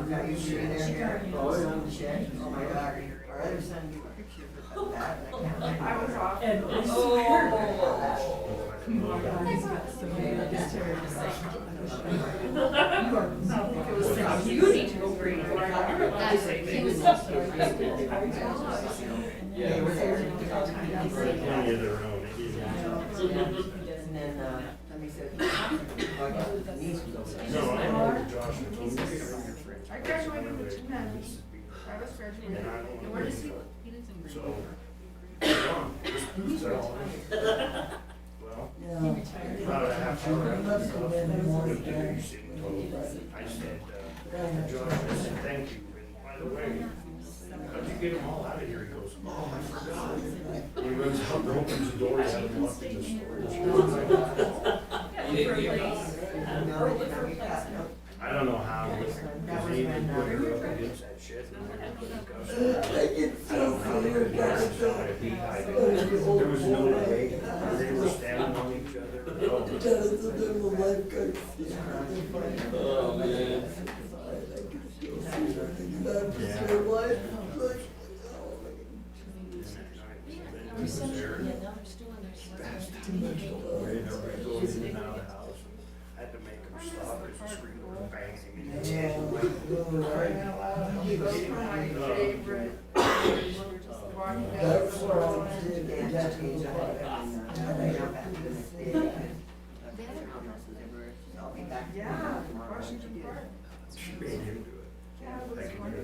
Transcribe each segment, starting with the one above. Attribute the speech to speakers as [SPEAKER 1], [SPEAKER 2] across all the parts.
[SPEAKER 1] used to be
[SPEAKER 2] She
[SPEAKER 1] there.
[SPEAKER 2] got me.
[SPEAKER 1] Oh, yeah. Oh, my God. Our other son, you were that. and I can't
[SPEAKER 3] I was off.
[SPEAKER 2] And I swear.
[SPEAKER 1] remember.
[SPEAKER 3] You need to go bring it.
[SPEAKER 1] They were there.
[SPEAKER 4] Plenty of their own, it is.
[SPEAKER 1] And then, uh, let me say, my niece was over there.
[SPEAKER 4] No, I know Josh and told me.
[SPEAKER 3] I graduated with two nines. I was graduating.
[SPEAKER 4] And I don't
[SPEAKER 3] And
[SPEAKER 4] wanna
[SPEAKER 3] where
[SPEAKER 4] be
[SPEAKER 3] does he?
[SPEAKER 4] cut.
[SPEAKER 5] He lives in Green.
[SPEAKER 4] So, gone, this booth's out. Well,
[SPEAKER 1] No.
[SPEAKER 4] about a half hour after the office, you should I said, uh, Josh, I said, thank you, and by the way, how'd you get them all out of here? He goes, oh, I forgot. He runs out, and opens the door, he had them locked in the storage.
[SPEAKER 1] No, it never got, no.
[SPEAKER 4] I don't know how, because he even put her up against that shit. I don't know how they could pass it down if he died. There was no way, they were standing on each other.
[SPEAKER 6] Oh, man.
[SPEAKER 4] He was there. Everybody goes in and out of the house. I Had to make him stop, because the screen was banging. and
[SPEAKER 3] He was my favorite. We were just walking down the
[SPEAKER 6] That's where
[SPEAKER 3] hall.
[SPEAKER 6] I did
[SPEAKER 1] Yeah, that changed. I had that in, uh, I got back to the state. I'll be back.
[SPEAKER 3] Yeah, Washington Park.
[SPEAKER 4] She made him
[SPEAKER 3] Yeah, it
[SPEAKER 4] do it.
[SPEAKER 3] was
[SPEAKER 4] I can hear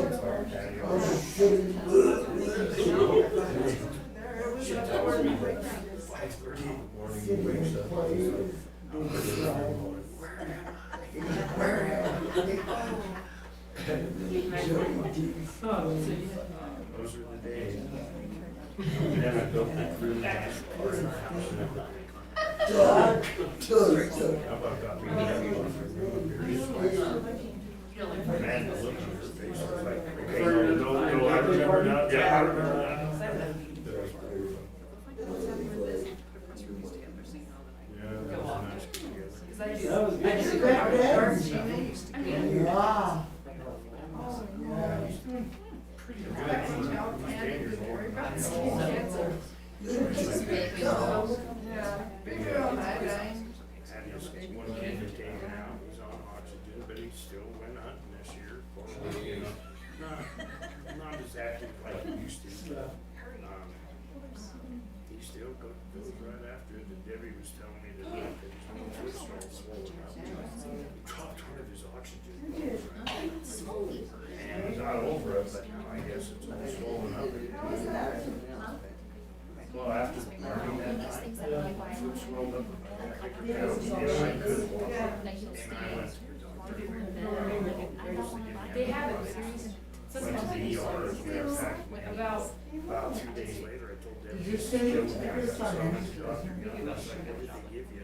[SPEAKER 4] this.
[SPEAKER 3] wonderful.
[SPEAKER 4] Patio.
[SPEAKER 3] There, it was
[SPEAKER 4] Shit,
[SPEAKER 3] up
[SPEAKER 4] that was
[SPEAKER 3] where
[SPEAKER 4] me.
[SPEAKER 3] we went down this-
[SPEAKER 4] Five thirty in the morning, he wakes up. Where am I? Where am I? Those were the days. And Then I built that room back for our house. How about got me that one for Man, the look on her face was like, okay, no, no, no, I remember now. Yeah, I remember now. That was pretty fun. Yeah, that was nice.
[SPEAKER 3] Cause I just.
[SPEAKER 6] That was good.
[SPEAKER 3] I just grabbed it, dark jeans. I mean, oh, no. I can tell Pam was worried about skin cancer. Yeah, big girl, I dying.
[SPEAKER 4] Had his one kid that came out, he's on oxygen, but he still went hunting this year. Fortunately, you know, Not, not as active like he used to. Um, He still go- goes right after it, and Debbie was telling me that he was all swollen up. Dropped one of his oxygen. And he's not over it, but now I guess it's all swollen up. Well, after learning that night, it swelled up. I could tell he didn't like it.
[SPEAKER 3] Yeah.
[SPEAKER 4] And I went to your doctor.
[SPEAKER 5] They have
[SPEAKER 4] it. Went to the ER as a matter of fact, and
[SPEAKER 5] About.
[SPEAKER 4] About two days later, I told them.
[SPEAKER 6] Did you say it was
[SPEAKER 4] "Still
[SPEAKER 6] every
[SPEAKER 4] have some
[SPEAKER 6] Sunday?"
[SPEAKER 4] of the doctor done, I was like, "What did they give you?"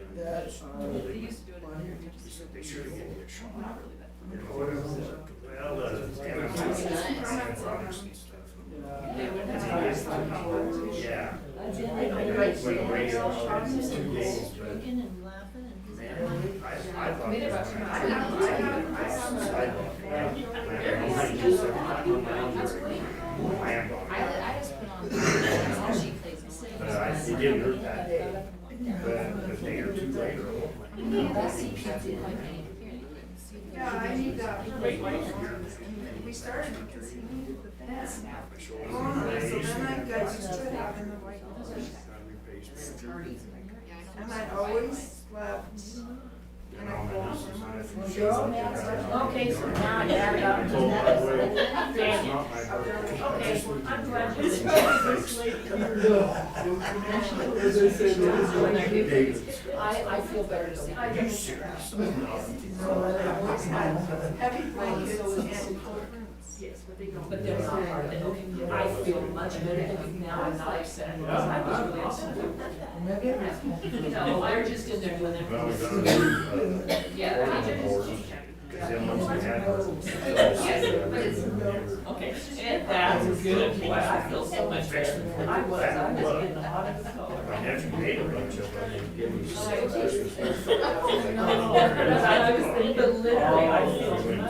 [SPEAKER 5] They used to do it.
[SPEAKER 4] He said, they should have given you a shot.
[SPEAKER 5] Not really that.
[SPEAKER 4] And I was like, Well, uh, damn it, I'm antibiotics and stuff." Yeah. Went away for all these two days, but
[SPEAKER 5] and laughing and.
[SPEAKER 4] Man, I, I thought.
[SPEAKER 5] Made it about two
[SPEAKER 4] I- I- I- I saw the sidewalk, yeah. And I just said, "I'm not around very much." I am on it.
[SPEAKER 5] I just put on. That's how she plays.
[SPEAKER 4] But I, it didn't hurt that day, but a day or two later, oh my.
[SPEAKER 5] That's the fancy like me.
[SPEAKER 3] Yeah, I need that. We started because he needed the best.
[SPEAKER 4] My shoulder
[SPEAKER 3] Oh, so
[SPEAKER 4] raised,
[SPEAKER 3] then I
[SPEAKER 4] and
[SPEAKER 3] got used to having the white nose.
[SPEAKER 4] I replaced it.
[SPEAKER 3] And I always slept.
[SPEAKER 4] And all my nurses, I think she
[SPEAKER 3] Well, girl,
[SPEAKER 4] was like,
[SPEAKER 3] now-
[SPEAKER 2] Okay, so now I got it
[SPEAKER 4] I told her, Oh, by the way, it's not my birthday. I
[SPEAKER 2] Okay,
[SPEAKER 4] just
[SPEAKER 2] well,
[SPEAKER 4] looked at
[SPEAKER 2] I'm
[SPEAKER 4] her
[SPEAKER 2] glad
[SPEAKER 4] face.
[SPEAKER 2] this was late.
[SPEAKER 4] David's-
[SPEAKER 2] I, I feel better. than I
[SPEAKER 4] You
[SPEAKER 2] do.
[SPEAKER 4] serious? No.
[SPEAKER 3] Heavy blankets and cold rooms.
[SPEAKER 2] Yes, but they don't. But there's not hard, that, okay, I feel much better because now I'm not upset, because I was really upset. No, I was just in there doing that.
[SPEAKER 4] Well, we got a new, uh,
[SPEAKER 2] Yeah, I
[SPEAKER 4] organ
[SPEAKER 2] just-
[SPEAKER 4] board, 'cause then once we had her-
[SPEAKER 2] Okay, and that was good, Boy, I feel so much better. I was, I was in the hottest
[SPEAKER 4] My
[SPEAKER 2] color.
[SPEAKER 4] nephew made a bunch of them and gave me some.
[SPEAKER 2] No, because I was, but literally, I feel much